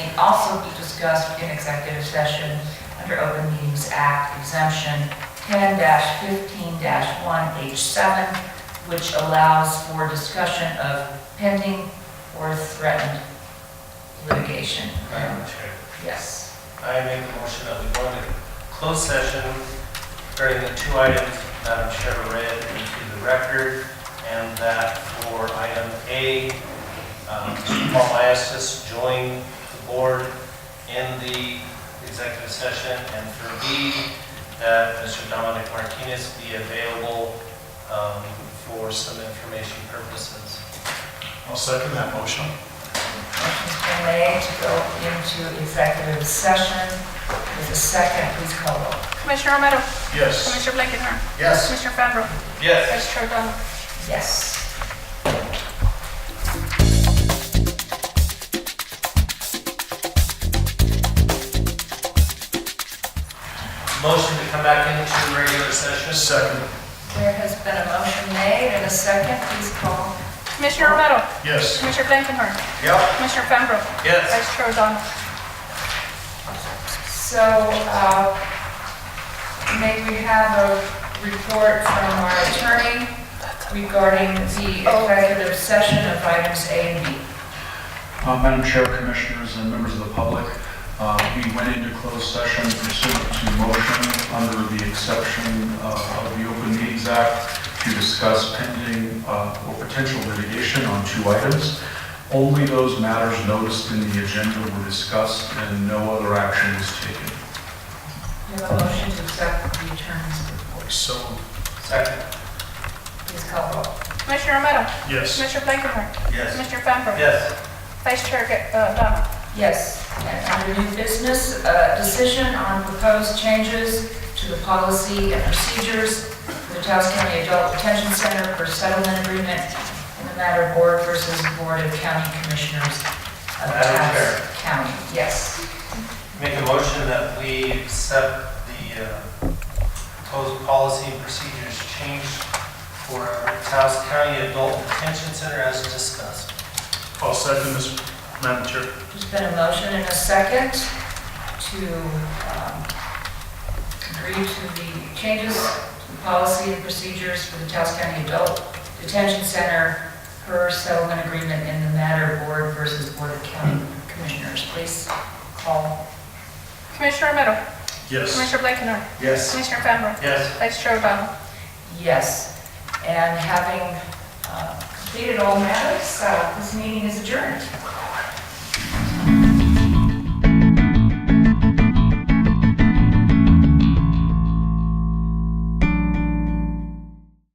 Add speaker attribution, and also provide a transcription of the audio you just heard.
Speaker 1: also be discussed in executive session under Open Meetings Act exemption 10-15-1H7, which allows for discussion of pending or threatened litigation.
Speaker 2: Madam Chair,
Speaker 1: Yes.
Speaker 2: I make a motion that we go into closed session regarding the two items Madam Chair read into the record, and that for item A, um, Paul Iastis join the board in the executive session, and for B, that Mr. Dominic Martinez be available um, for some information purposes.
Speaker 3: I'll second that motion.
Speaker 1: Motion's been made to go into executive session. With a second, please call roll.
Speaker 4: Commissioner Romero,
Speaker 3: Yes.
Speaker 4: Commissioner Blakenher,
Speaker 3: Yes.
Speaker 4: Commissioner Fambro,
Speaker 2: Yes.
Speaker 4: Vice Chair O'Donnell.
Speaker 1: Yes.
Speaker 2: Motion to come back into regular session.
Speaker 3: Second.
Speaker 1: There has been a motion made and a second, please call.
Speaker 4: Commissioner Romero,
Speaker 3: Yes.
Speaker 4: Commissioner Blakenher,
Speaker 3: Yep.
Speaker 4: Commissioner Fambro,
Speaker 2: Yes.
Speaker 4: Vice Chair O'Donnell.
Speaker 1: So, uh, may we have a report from our attorney regarding the executive session of items A and B?
Speaker 5: Uh, Madam Chair, Commissioners, and members of the public, uh, we went into closed session pursuant to motion under the exception uh, of the Open Meetings Act to discuss pending uh, or potential litigation on two items. Only those matters noticed in the agenda were discussed and no other action was taken.
Speaker 1: We have a motion to accept the attorney's report.
Speaker 3: So,
Speaker 2: Second.
Speaker 1: Please call roll.
Speaker 4: Commissioner Romero,
Speaker 3: yes.
Speaker 4: Commissioner Blakenher,
Speaker 2: Yes.
Speaker 4: Commissioner Fambro,
Speaker 2: Yes.
Speaker 4: Vice Chair uh, O'Donnell.
Speaker 1: Yes, and under new business, uh, decision on proposed changes to the policy and procedures for the Taos County Adult Detention Center for settlement agreement in the matter of board versus Board of County Commissioners of
Speaker 2: Madam
Speaker 1: Taos
Speaker 2: Chair.
Speaker 1: County. Yes,
Speaker 2: Make a motion that we accept the uh, proposed policy and procedures change for Taos County Adult Detention Center as discussed.
Speaker 3: I'll second this, Madam Chair.
Speaker 1: there's been a motion and a second to um, agree to the changes to the policy and procedures for the Taos County Adult Detention Center per settlement agreement in the matter of board versus Board of County Commissioners. Please call.
Speaker 4: Commissioner Romero,
Speaker 3: Yes.
Speaker 4: Commissioner Blakenher,
Speaker 3: Yes.
Speaker 4: Commissioner Fambro,
Speaker 2: Yes.
Speaker 4: Vice Chair O'Donnell.
Speaker 1: Yes, and having uh, completed all matters, uh, this meeting is adjourned.